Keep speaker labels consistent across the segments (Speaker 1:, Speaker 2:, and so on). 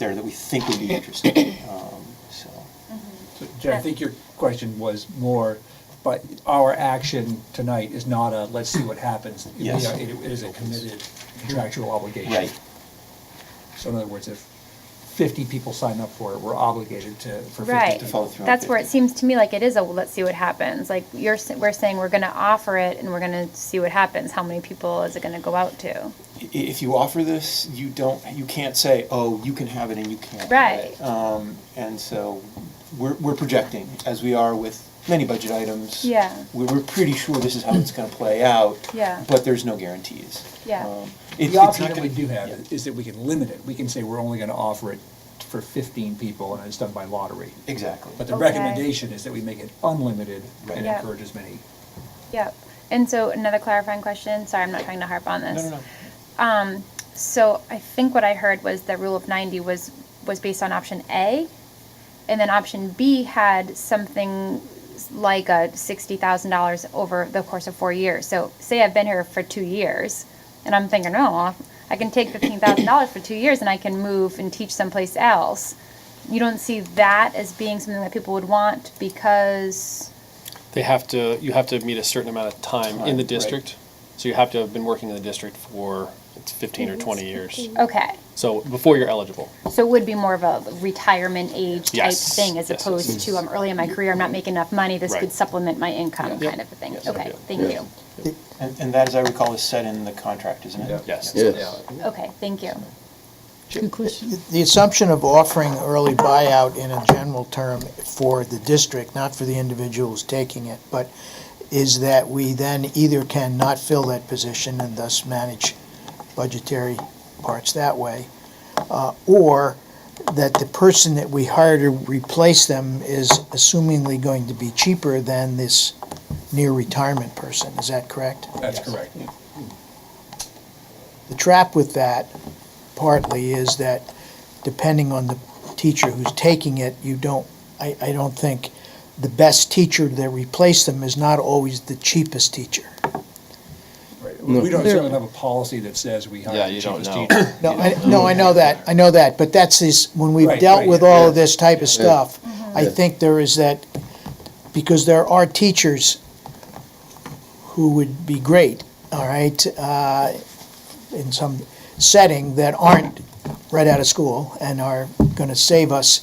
Speaker 1: there that we think would be interesting. Um, So,
Speaker 2: So, Jen, I think your question was more, but our action tonight is not a, let's see what happens. You
Speaker 1: Yes.
Speaker 2: know, It it is a committed contractual obligation.
Speaker 1: right,
Speaker 2: So in other words, if 50 people sign up for it, we're obligated to, for 50
Speaker 3: Right.
Speaker 1: To
Speaker 2: people.
Speaker 1: follow through on
Speaker 3: That's where it
Speaker 1: 50.
Speaker 3: seems to me like it is a, well, let's see what happens. Like you're, s- we're saying we're gonna offer it and we're gonna see what happens. How many people is it gonna go out to?
Speaker 1: I- if you offer this, you don't, you can't say, oh, you can have it and you can't. have
Speaker 3: Right.
Speaker 1: it. Um, And so we're, we're projecting, as we are with many budget items.
Speaker 3: Yeah.
Speaker 1: We're, we're pretty sure this is how it's gonna play out.
Speaker 3: Yeah.
Speaker 1: But there's no guarantees.
Speaker 3: Yeah.
Speaker 1: Um, it- it's
Speaker 2: The
Speaker 1: not
Speaker 2: option that
Speaker 1: gonna-
Speaker 2: we do
Speaker 1: yeah.
Speaker 2: have is that we can limit it. We can say we're only going to offer it for 15 people and it's done by lottery.
Speaker 1: Exactly.
Speaker 2: But the
Speaker 3: Okay.
Speaker 2: recommendation is that we make it unlimited
Speaker 1: Right.
Speaker 2: and
Speaker 3: Yeah.
Speaker 2: encourage as many.
Speaker 3: Yep. And so another clarifying question. Sorry, I'm not trying to harp on
Speaker 1: No,
Speaker 3: this.
Speaker 1: no, no.
Speaker 3: Um, so I think what I heard was the rule of 90 was, was based on option A. And then option B had something s- like a $60,000 over the course of four years. So say I've been here for two years and I'm thinking, oh, I can take $15,000 for two years and I can move and teach someplace else. You don't see that as being something that people would want because,
Speaker 4: They have to, you have to meet a certain amount of time
Speaker 1: Time,
Speaker 4: in the
Speaker 1: right.
Speaker 4: district. So you have to have been working in the district for it's fifteen or twenty years.
Speaker 3: okay.
Speaker 4: So before you're eligible.
Speaker 3: So it would be more of a retirement age type
Speaker 4: Yes.
Speaker 3: thing as
Speaker 4: Yes,
Speaker 3: opposed
Speaker 4: yes.
Speaker 3: to I'm early in my career, I'm not making enough money, this could
Speaker 4: Right.
Speaker 3: supplement my income
Speaker 4: Yeah.
Speaker 3: kind of a thing.
Speaker 4: Yes.
Speaker 3: Okay,
Speaker 4: Yeah.
Speaker 3: thank
Speaker 5: Yeah.
Speaker 3: you.
Speaker 1: And, and that, as I recall, is set in the contract, isn't it?
Speaker 4: Yes.
Speaker 5: Yes.
Speaker 3: Okay, thank you.
Speaker 6: Good question.
Speaker 7: The assumption of offering early buyout in a general term for the district, not for the individuals taking it, but is that we then either can not fill that position and thus manage budgetary parts that way, uh, or that the person that we hire to replace them is assumingly going to be cheaper than this near retirement person. Is that correct?
Speaker 2: That's correct.
Speaker 7: The trap with that partly is that depending on the teacher who's taking it, you don't, I, I don't think the best teacher that replaced them is not always the cheapest teacher.
Speaker 2: Right. We don't
Speaker 6: There-
Speaker 2: certainly have a policy that says we hire
Speaker 4: Yeah,
Speaker 2: the
Speaker 4: you don't
Speaker 2: cheapest
Speaker 4: know.
Speaker 2: teacher.
Speaker 7: No, I, no, I know that, I know that, but that's this, when we've
Speaker 2: Right,
Speaker 7: dealt
Speaker 2: right,
Speaker 7: with
Speaker 2: yeah,
Speaker 7: all
Speaker 2: yeah. Mm-hmm.
Speaker 7: of this type of stuff, I
Speaker 5: Yeah.
Speaker 7: think there is that, because there are teachers who would be great, all right, uh, in some setting that aren't right out of school and are gonna save us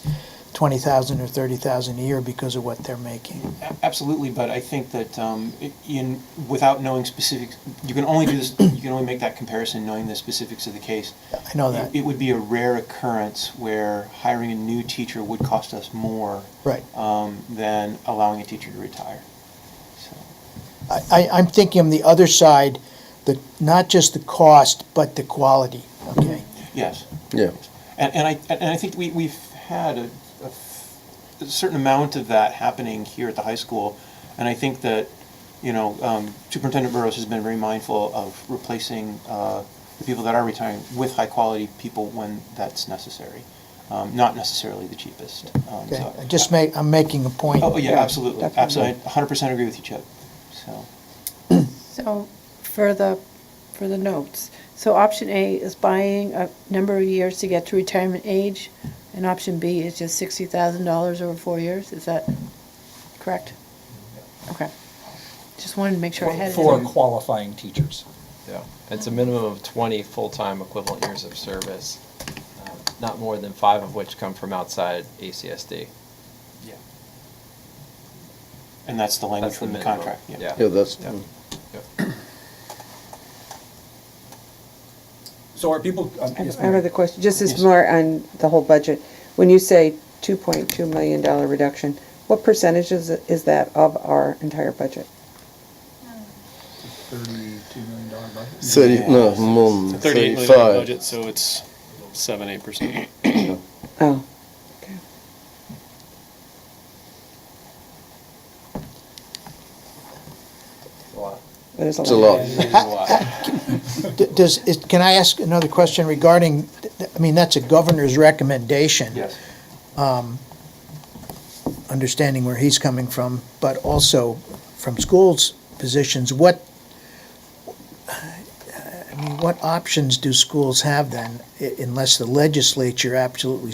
Speaker 7: twenty thousand or thirty thousand a year because of what they're making.
Speaker 1: A- Absolutely, but I think that um, i- in, without knowing specifics, you can only do this, you can only make that comparison knowing the specifics of the case.
Speaker 7: I know that.
Speaker 1: It would be a rare occurrence where hiring a new teacher would cost us more
Speaker 7: Right.
Speaker 1: um, than allowing a teacher to retire. So,
Speaker 7: I, I- I'm thinking on the other side, the, not just the cost, but the quality, okay?
Speaker 1: Yes.
Speaker 5: Yeah.
Speaker 1: And, and I, and I think we, we've had a, a f- a certain amount of that happening here at the high school. And I think that, you know, um, Superintendent Burrows has been very mindful of replacing, uh, the people that are retiring with high-quality people when that's necessary. Um, not necessarily the cheapest. Um,
Speaker 7: Okay,
Speaker 1: so-
Speaker 7: I just make, I'm making a point.
Speaker 1: Oh, yeah, absolutely,
Speaker 7: definitely.
Speaker 1: absolutely. I hundred percent agree with you, Chip, so.
Speaker 8: So for the, for the notes, so option A is buying a number of years to get to retirement age, and option B is just sixty thousand dollars over four years, is that correct? Okay. Just wanted to make sure I had it.
Speaker 2: For qualifying teachers.
Speaker 9: Yeah, it's a minimum of 20 full-time equivalent years of service, uh, not more than five of which come from outside ACSD.
Speaker 1: Yeah. And that's the language
Speaker 9: That's
Speaker 1: from the
Speaker 9: minimum.
Speaker 1: contract,
Speaker 9: Yeah.
Speaker 5: Yeah, that's,
Speaker 9: Yeah. Yep.
Speaker 2: So are people? um,
Speaker 10: I have-
Speaker 2: yes,
Speaker 10: I have
Speaker 2: ma'am.
Speaker 10: another question, just
Speaker 1: Yes.
Speaker 10: as more on the whole budget. When you say two point two million dollar reduction, what percentage is, is that of our entire budget?
Speaker 2: Thirty-two million dollar budget?
Speaker 5: thirty, no,
Speaker 1: Yeah.
Speaker 5: more than
Speaker 4: It's a thirty-eight million dollar
Speaker 5: thirty-five.
Speaker 4: budget, so it's seven, eight percent.
Speaker 10: Oh, okay. That is a
Speaker 5: It's a
Speaker 10: lot.
Speaker 5: lot.
Speaker 7: D- Does, is- can I ask another question regarding, I mean, that's a governor's recommendation. Um,
Speaker 1: Yes.
Speaker 7: Understanding where he's coming from, but also from schools' positions, what, I mean, mean, what options do schools have then, i- unless the legislature absolutely